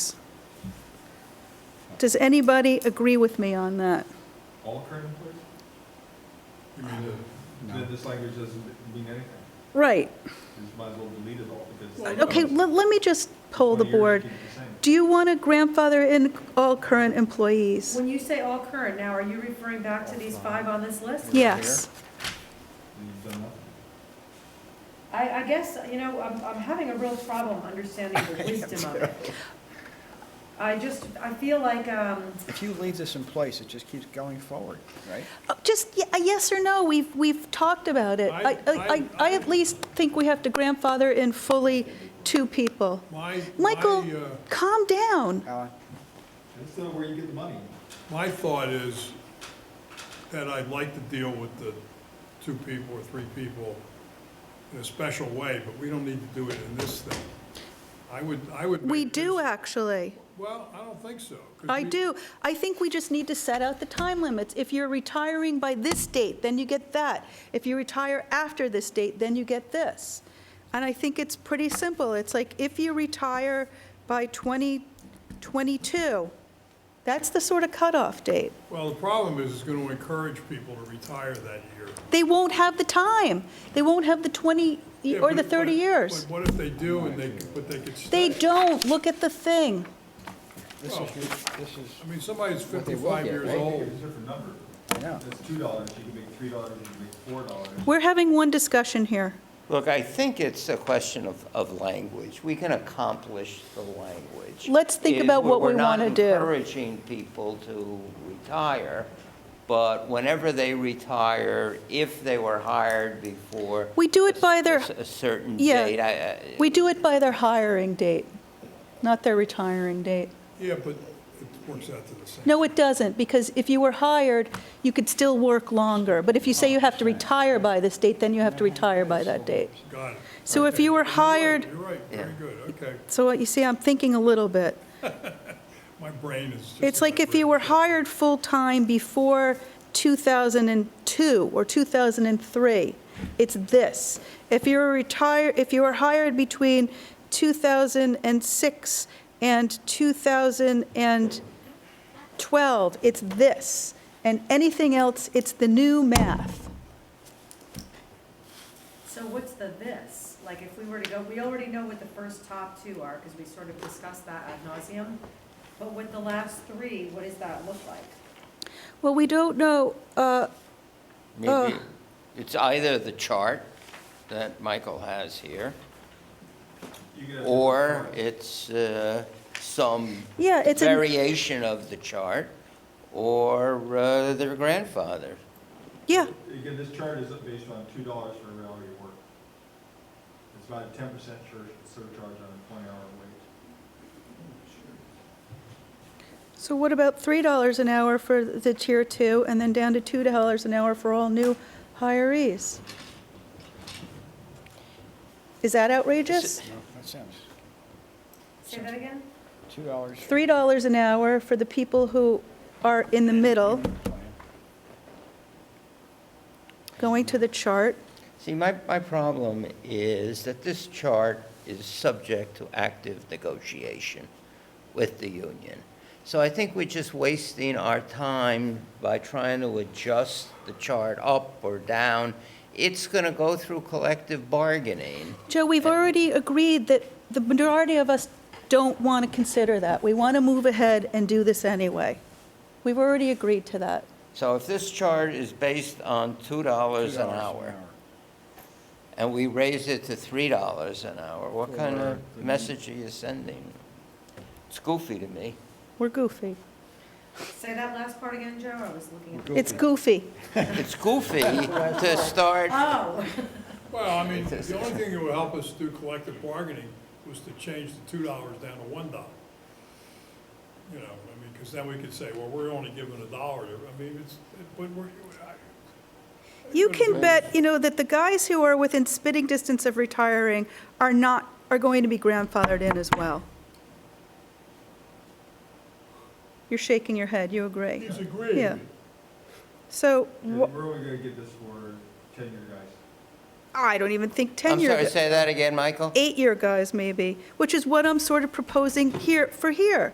Does anybody agree with me on that? All current employees? You mean, the- the- this language doesn't mean anything, Right. you just might as well delete it all, because. Okay, let, let me just poll the Well, you're board. gonna keep it the same. Do you want to grandfather in all current employees? When you say all current now, are you referring back to these five on this list? Yes. You've done nothing. I, I guess, you know, I'm, I'm having a real problem understanding the wisdom of it. I just, I feel like, um, If you leave this in place, it just keeps going forward, right? Oh, Just y- a yes or no, we've, we've talked about it. I, I, I I at least think we have to grandfather in fully two people. My, my, Michael, uh, calm down. Alan? That's not where you get the money. my thought is that I'd like to deal with the two people or three people in a special way, but we don't need to do it in this thing. I would, I would. We make do, this- actually. Well, I don't think so. 'cause I we- do. I think we just need to set out the time limits. If you're retiring by this date, then you get that. If you retire after this date, then you get this. And I think it's pretty simple. It's like, if you retire by 2022, that's the sort of cutoff date. Well, the problem is it's going to encourage people to retire that year. They won't have the time. They won't have the 20 Yeah, or but- the 30 but- years. But what if they do and they, but they could They stay? don't. Look at the thing. This Well- is, this is, I mean, somebody's What they will 55 get, years right? old. It's a different number. I know. That's two dollars, you can make three dollars, you can make four dollars. We're having one discussion here. Look, I think it's a question of, of language. We can accomplish the language. Let's think It- about what we wanna do. We're not encouraging people to retire, but whenever they retire, if they were hired before We do it by their, a s- a certain Yeah. date, I- uh, I- we do it by their hiring date, not their retiring date. Yeah, but it works out to the same. No, it doesn't, because if you were hired, you could still work longer. But if you say you have to retire by this date, then you have to retire by that date. Got it. So if Okay, you were you're right, hired- You're right, very good, okay. So what you see, I'm thinking a little bit. My brain is just. It's like if you not were hired full-time before 2002 or 2003, it's this. If you were retired, if you were hired between 2006 and 2012, it's this. And anything else, it's the new math. so what's the this? Like, if we were to go, we already know what the first top two are, because we sort of discussed that ad nauseum. But with the last three, what does that look like? Well, we don't know, uh, maybe, it's either the chart that Michael has here, You get a- or it's uh, some yeah, it's, a- variation of the chart, or uh, their grandfather. yeah, Again, this chart is based on two dollars for every hour you work. It's about a ten percent surcharge on a twenty-hour wage. So what about $3 an hour for the tier two, and then down to $2 an hour for all new hirees? Is that outrageous? no, that sounds, Say that again? two dollars. $3 an hour for the people who are in the middle, going to the chart. See, my, my problem is that this chart is subject to active negotiation with the union. So I think we're just wasting our time by trying to adjust the chart up or down. It's going to go through collective bargaining. Joe, we've already agreed that the majority of us don't want to consider that. We want to move ahead and do this anyway. We've already agreed to that. So if this chart is based on $2 an hour and we raise it to $3 an hour, what kind of message are you sending? It's goofy to me. We're goofy. Say that last part again, Joe, I was looking at. It's goofy. It's goofy to start Oh, Well, I mean, the only thing that would help us do collective bargaining was to change the two dollars down to one dollar. You know, I mean, because then we could say, well, we're only giving a dollar, I mean, it's, but we're, I- You can bet, you know, that the guys who are within spitting distance of retiring are not, are going to be grandfathered in as well. You're shaking your head, you agree. he's agreeing. Yeah. So, And wh- We're only gonna get this for ten-year guys. I don't even think I'm 10-year, sorry, say that again, Michael? eight-year guys maybe, which is what I'm sort of proposing here, for here.